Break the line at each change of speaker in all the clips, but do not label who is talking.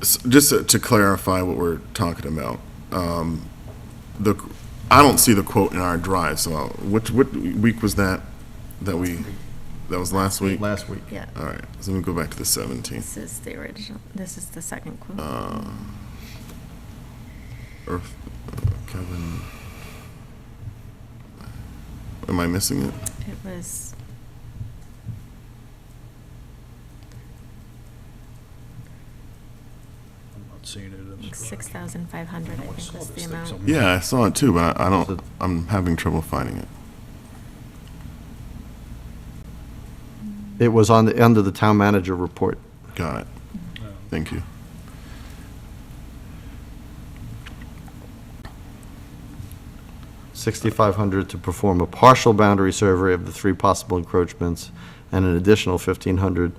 S- Just to clarify what we're talking about, um, the, I don't see the quote in our drive, so I'll- what, what week was that? That we, that was last week? All
last week.
Yeah,
right, so let me go back to the 17th.
this is the original, this is the second quote.
Uh.
um, Earth- uh, Kevin. Am I missing it?
It was.
I'm not seeing it in the drive.
Six thousand five hundred, I
No, I
think
saw
was
this
the
thing
amount.
somewhere.
Yeah, I saw it too, but I I
So-
don't, I'm having trouble finding it.
It was on the, under the town manager report.
Got it.
No.
Thank you.
Sixty-five hundred to perform a partial boundary survey of the three possible encroachments, and an additional fifteen hundred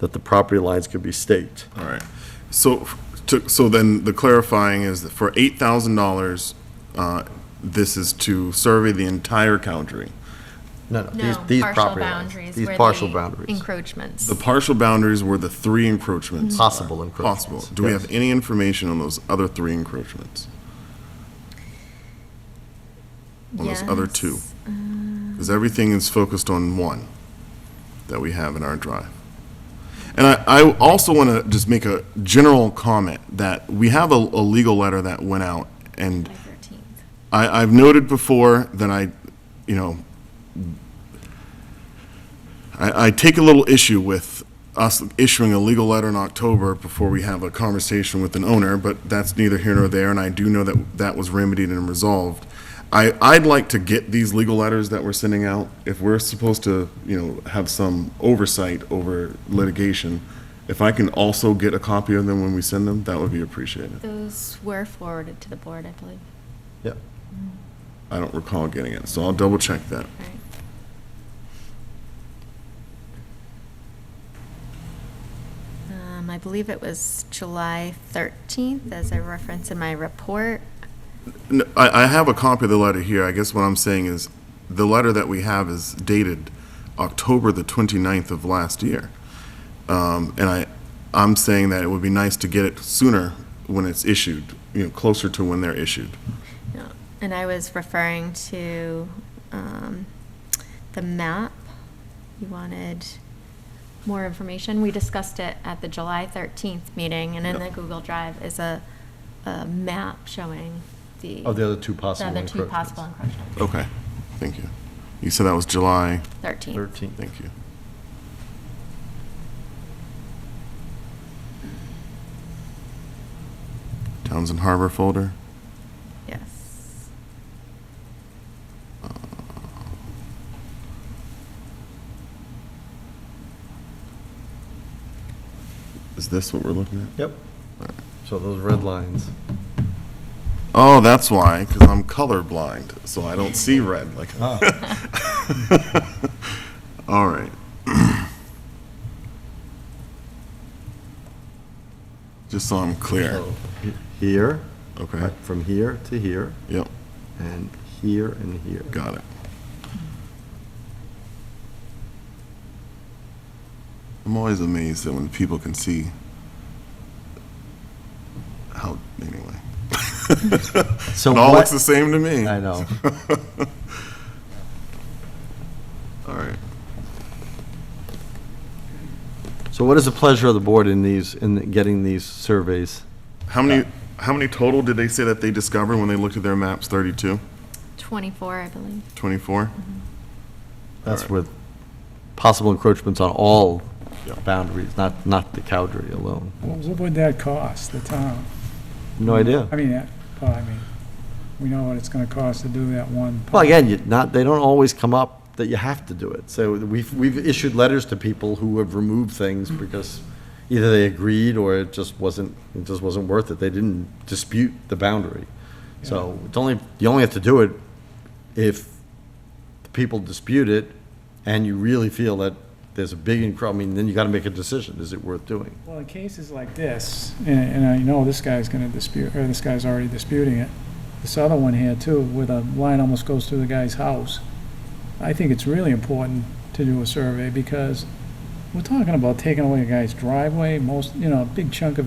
that the property lines could be staked.
All right. So, f- to, so then the clarifying is that for eight thousand dollars, uh, this is to survey the entire country.
No, no,
No,
these, these
partial
property lines.
boundaries
These
were
partial
the
boundaries,
encroachments.
The partial boundaries were the three encroachments. Uh,
possible encroachments.
Possible. Do we
Yes.
have any information on those other three encroachments? on those other two.
Yes.
Because everything is focused on one that we have in our drive. And I, I also want to just make a general comment that we have a, a legal letter that went out and
By thirteenth.
I, I've noted before that I, you know, I, I take a little issue with us issuing a legal letter in October before we have a conversation with an owner, but that's neither here nor there, and I do know that that was remedied and resolved. I, I'd like to get these legal letters that we're sending out, if we're supposed to, you know, have some oversight over litigation, if I can also get a copy of them when we send them, that would be appreciated.
Those were forwarded to the board, I believe.
Yeah.
I don't recall getting it, so I'll double check that.
Right.
Um, I believe it was July thirteenth, as I referenced in my report.
No, I, I have a copy of the letter here. I guess what I'm saying is, the letter that we have is dated October the 29th of last year. Um, and I, I'm saying that it would be nice to get it sooner when it's issued, you know, closer to when they're issued.
No, And I was referring to um, the map. You wanted more information. We discussed it at the July 13th meeting, and in the
Yep.
Google Drive is a, a map showing the.
Oh, the other two possible
The other two
encroachments.
possible encroachments.
Okay. Thank you. You said that was July,
13th.
Thirteen.
thank you. Townsend Harbor folder.
Yes.
Is this what we're looking at?
Yep. So those red lines.
Oh, that's why, because I'm colorblind, so I don't see red like. All right. Just so I'm clear.
So he- Here,
Okay,
right, from here to here,
yep,
and here and here.
got it. I'm always amazed that when people can see how, anyway.
So
It all
what-
looks the same to me.
I know.
All right.
So what is the pleasure of the board in these, in getting these surveys?
How many, how many total did they say that they discovered when they looked at their maps? 32,
24, I believe.
24?
That's
Alright.
with possible encroachments on all
Yeah.
boundaries, not, not the Cowdery alone. Mm-hmm.
What what would that cost, the town?
No idea.
I mean, that, well, I mean, we know what it's gonna cost to do that one.
Well, again, you not, they don't always come up that you have to do it. So we've, we've issued letters to people who have removed things because either they agreed or it just wasn't, it just wasn't worth it. They didn't dispute the boundary. So it's only, you only have to do it if the people dispute it and you really feel that there's a big, encro- I mean, then you gotta make a decision. Is it worth doing?
Well, in cases like this, and, and I know this guy's gonna dispute, or this guy's already disputing it, this other one here too, where the line almost goes through the guy's house, I think it's really important to do a survey, because we're talking about taking away a guy's driveway, most, you know, a big chunk of